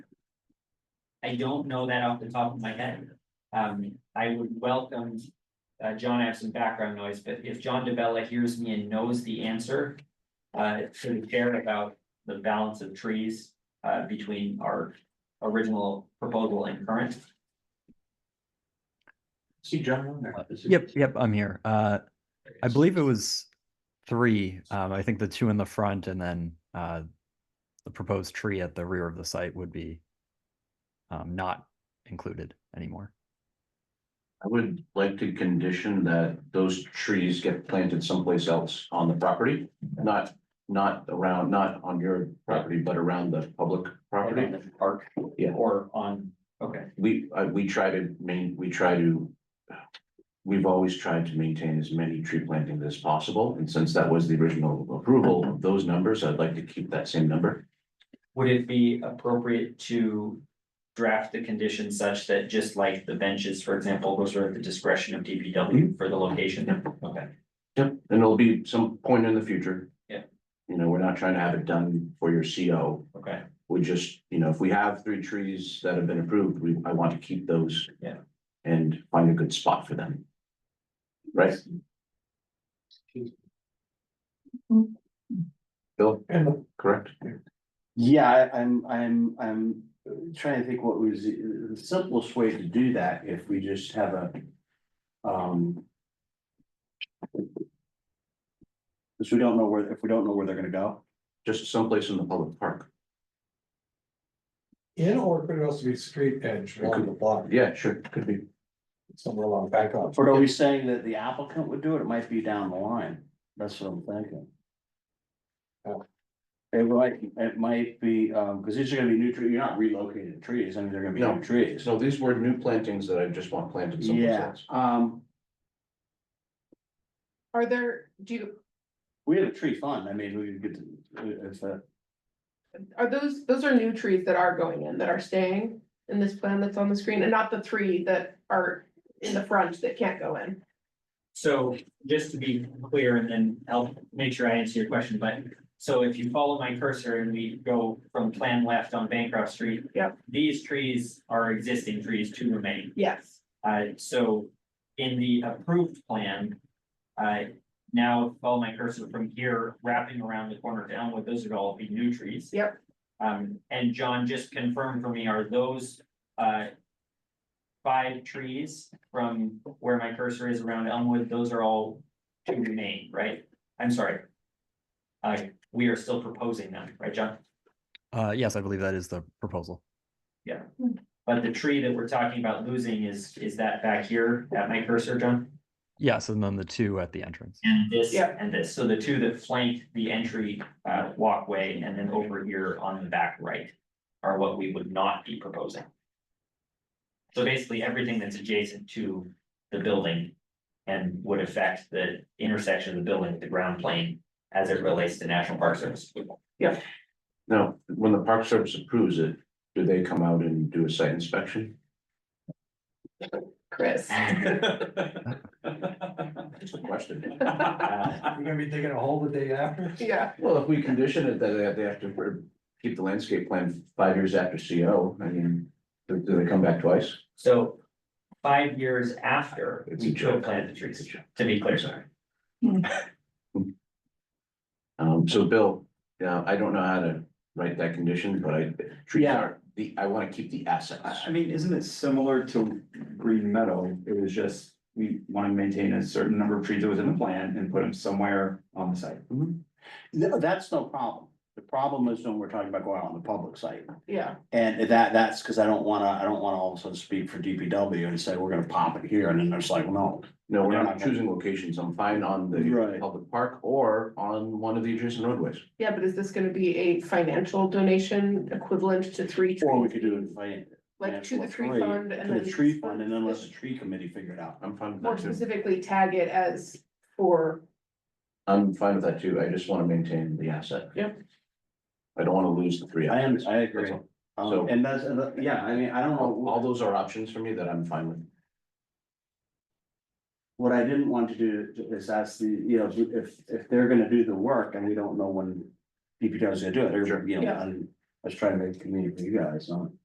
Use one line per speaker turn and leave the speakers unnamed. I don't know that off the top of my head. Um, I would welcome. Uh, John, I have some background noise, but if John DeBella hears me and knows the answer. Uh, to the chair about the balance of trees, uh, between our original proposal and current.
See John on there.
Yep, yep, I'm here. Uh, I believe it was three. Um, I think the two in the front and then, uh, the proposed tree at the rear of the site would be um, not included anymore.
I would like to condition that those trees get planted someplace else on the property, not, not around, not on your property, but around the public property.
Park.
Yeah.
Or on, okay,
We, uh, we try to main, we try to. We've always tried to maintain as many tree plantings as possible, and since that was the original approval of those numbers, I'd like to keep that same number.
would it be appropriate to? Draft the condition such that just like the benches, for example, those are at the discretion of DPW for the location, okay?
Yep, and it'll be some point in the future.
Yeah.
You know, we're not trying to have it done for your CO,
Okay,
We just, you know, if we have three trees that have been approved, we, I want to keep those.
Yeah.
And find a good spot for them. Right? Bill, correct?
Yeah, I- I'm, I'm, I'm trying to think what was the the simplest way to do that if we just have a. Um. Because we don't know where, if we don't know where they're gonna go.
Just someplace in the public park.
In or could it also be street edge along the block,
Yeah, sure, could be.
somewhere along back up?
But are we saying that the applicant would do it? It might be down the line. That's what I'm thinking.
Oh.
It might, it might be, um, because these are gonna be new trees. You're not relocating trees. I mean, they're gonna be
No.
new trees.
So these were new plantings that I just want planted someplace
Yeah,
else.
um,
Are there, do you,
we have a tree fund. I mean, we could get, to- uh, it's a.
are those, those are new trees that are going in, that are staying in this plan that's on the screen, and not the three that are in the front that can't go in?
so just to be clear, and then I'll make sure I answer your question, but. So if you follow my cursor and we go from plan left on Bancroft Street.
Yep.
These trees are existing trees to remain.
Yes,
Uh, so in the approved plan, uh, now follow my cursor from here, wrapping around the corner to Elmwood, those would all be new trees.
Yep.
Um, and John, just confirm for me, are those, uh, five trees from where my cursor is around Elmwood, those are all to remain, right? I'm sorry. Uh, we are still proposing them, right, John?
Uh, yes, I believe that is the proposal.
But the tree that we're talking about losing is, is that back here at my cursor, John?
Yes, and then the two at the entrance.
And this
Yeah.
and this, so the two that flank the entry uh walkway and then over here on the back right. Are what we would not be proposing. So basically, everything that's adjacent to the building. And would affect the intersection of the building, with the ground plane, as it relates to National Park Service.
Now, when the Park Service approves it, do they come out and do a site inspection?
Chris.
That's a question.
Uh,
You're gonna be digging a hole the day after?
Yeah,
Well, if we condition it that they have, they have to re- keep the landscape plan five years after CO, I mean, do, do they come back twice?
So. Five years after
It's
we
a
could
joke.
plant the trees, to be clear, sorry.
Um, so Bill, yeah, I don't know how to write that condition, but I, trees
Yeah.
are, the, I wanna keep the
I,
assets.
I mean, isn't it similar to Green Meadow? It was just, we want to maintain a certain number of trees that was in the plan and put them somewhere on the site.
No, that's no problem. The problem is when we're talking about going out on the public site.
yeah,
And that, that's because I don't wanna, I don't wanna all of a sudden speak for DPW and say, we're gonna pop it here, and then there's like, no.
No, we're
They're
not
not gonna-
choosing locations, I'm fine on the
Right.
public park or on one of the adjacent roadways.
yeah, but is this gonna be a financial donation equivalent to three
Or we
trees?
could do it. by-
Like to the tree
Three,
fund and
To
then.
the tree fund, and then let the tree committee figure it out.
I'm fine with
More
that too,
specifically tag it as for,
I'm fine with that too, I just wanna maintain the asset.
Yep.
I don't wanna lose the three.
I am,
assets.
I agree.
That's So-
Um, and that's, and that- yeah, I mean, I don't
All all
know,
those are options for me that I'm fine with.
what I didn't want to do is ask the, you know, if, if they're gonna do the work and we don't know when DPW is gonna do it, they're, you know,
Yeah.
and I was trying to make community for you guys, so.